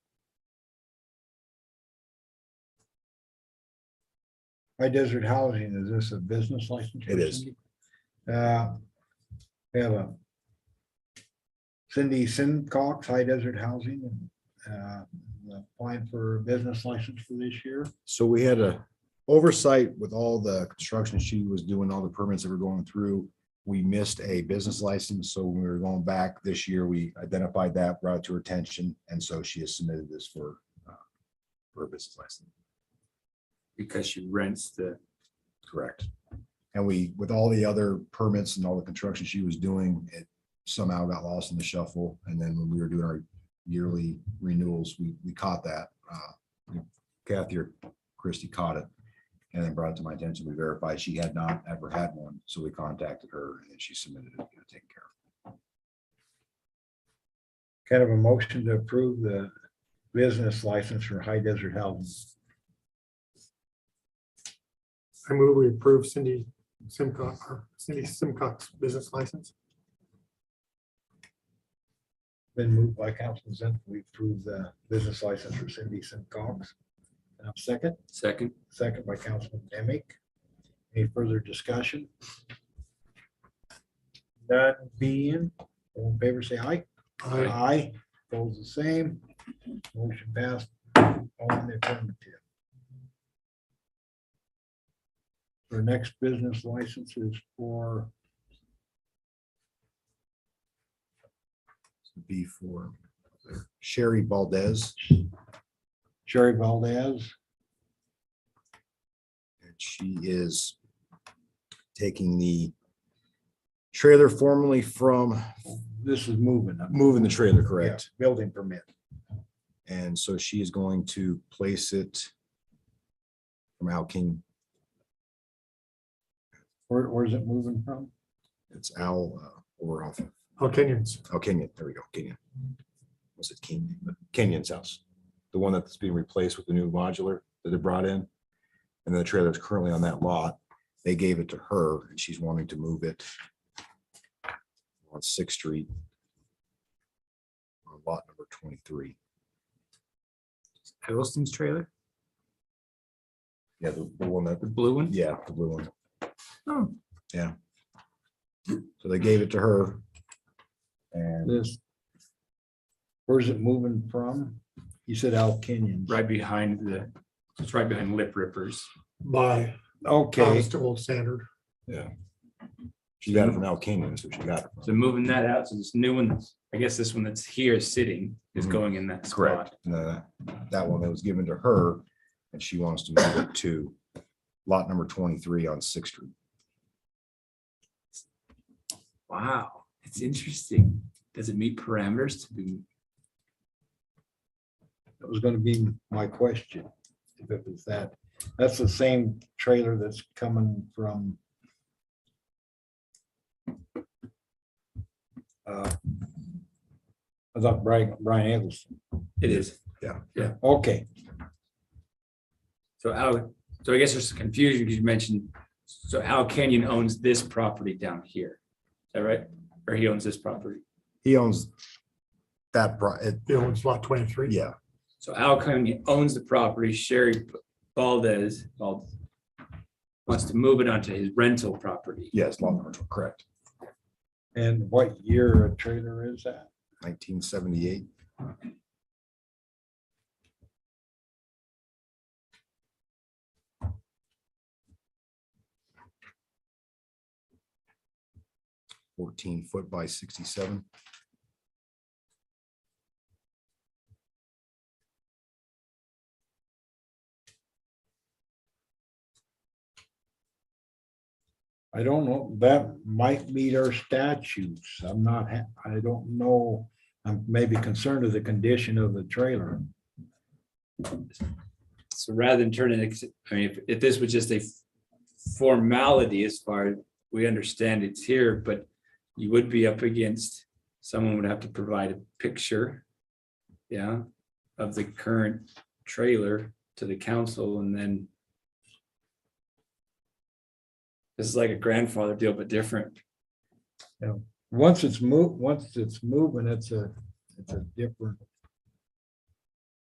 High Desert Housing, is this a business license? It is. Uh, We have a Cindy Sincox, High Desert Housing, uh, applying for a business license for this year. So we had a oversight with all the construction she was doing, all the permits that were going through. We missed a business license, so when we were going back this year, we identified that, brought it to her attention, and so she has submitted this for uh, for a business license. because she rents the, Correct. And we, with all the other permits and all the construction she was doing, it somehow got lost in the shuffle. And then when we were doing our yearly renewals, we, we caught that. Uh, Kathy or Christie caught it and then brought it to my attention. We verified she had not ever had one. So we contacted her and then she submitted it, you know, taken care Kind of a motion to approve the business license for High Desert Housing. I move we approve Cindy Simcox, or Cindy Simcox business license. Been moved by Councilman Zen, we approve the business license for Cindy Sincox. And I'll second, second, second by Councilman Demick. Any further discussion? None being, all in favor, say aye. I Aye, Opposed, the same. Motion passed. All in the affirmative. Our next business license is for of. B for Sherry Valdez. Sherry Valdez. And she is taking the trailer formerly from, This is moving. I'm- moving the trailer, correct? Yeah, Building permit. And so she is going to place it from Al King, Where, where's it moving from? it's Al uh, over off, of- All Kenyans. oh, Kenyon, there we go, Kenyon. Was it Kenyon? Kenyon's house, the one that's being replaced with the new modular that they brought in. And the trailer is currently on that lot. They gave it to her and she's wanting to move it on Sixth Street. On lot number twenty-three. Hiddleston's trailer, Yeah, the the one that the blue one. Yeah, the blue one. Oh. Yeah. So they gave it to her. And This. Where's it moving from? You said Al Canyon. Right behind the, it's right behind Lip Rippers. by Okay, Thomas to Old Standard. she got it from Al Canyon, so she got it. So from. moving that out, so this new one, I guess this one that's here sitting is Mhm. going in that spot. And then that- That one that was given to her and she wants to move it to lot number twenty-three on Sixth Street. Wow, it's interesting. Does it meet parameters to be, that was gonna be my question. If it was that, that's the same trailer that's coming from. Uh, I thought Brian, Brian Eggleston. it is. Okay, So Al, so I guess there's some confusion because you mentioned, so Al Canyon owns this property down here. Is that right? Or he owns this property? He owns that, pro- it- He owns lot twenty-three. yeah, So Al County owns the property, Sherry Valdez Val- wants to move it onto his rental property. yes, lot number, tw- correct, and what year a trailer is that? nineteen seventy-eight. Fourteen foot by sixty-seven. I don't know, that might meet our statutes. I'm not, ha- I don't know. I'm maybe concerned of the condition of the trailer. So rather than turn it, I mean, if, if this was just a formality as far as we understand it's here, but you would be up against, someone would have to provide a picture, yeah, of the current trailer to the council and then this is like a grandfather deal, but different. Once it's moved, once it's moving, it's a, it's a different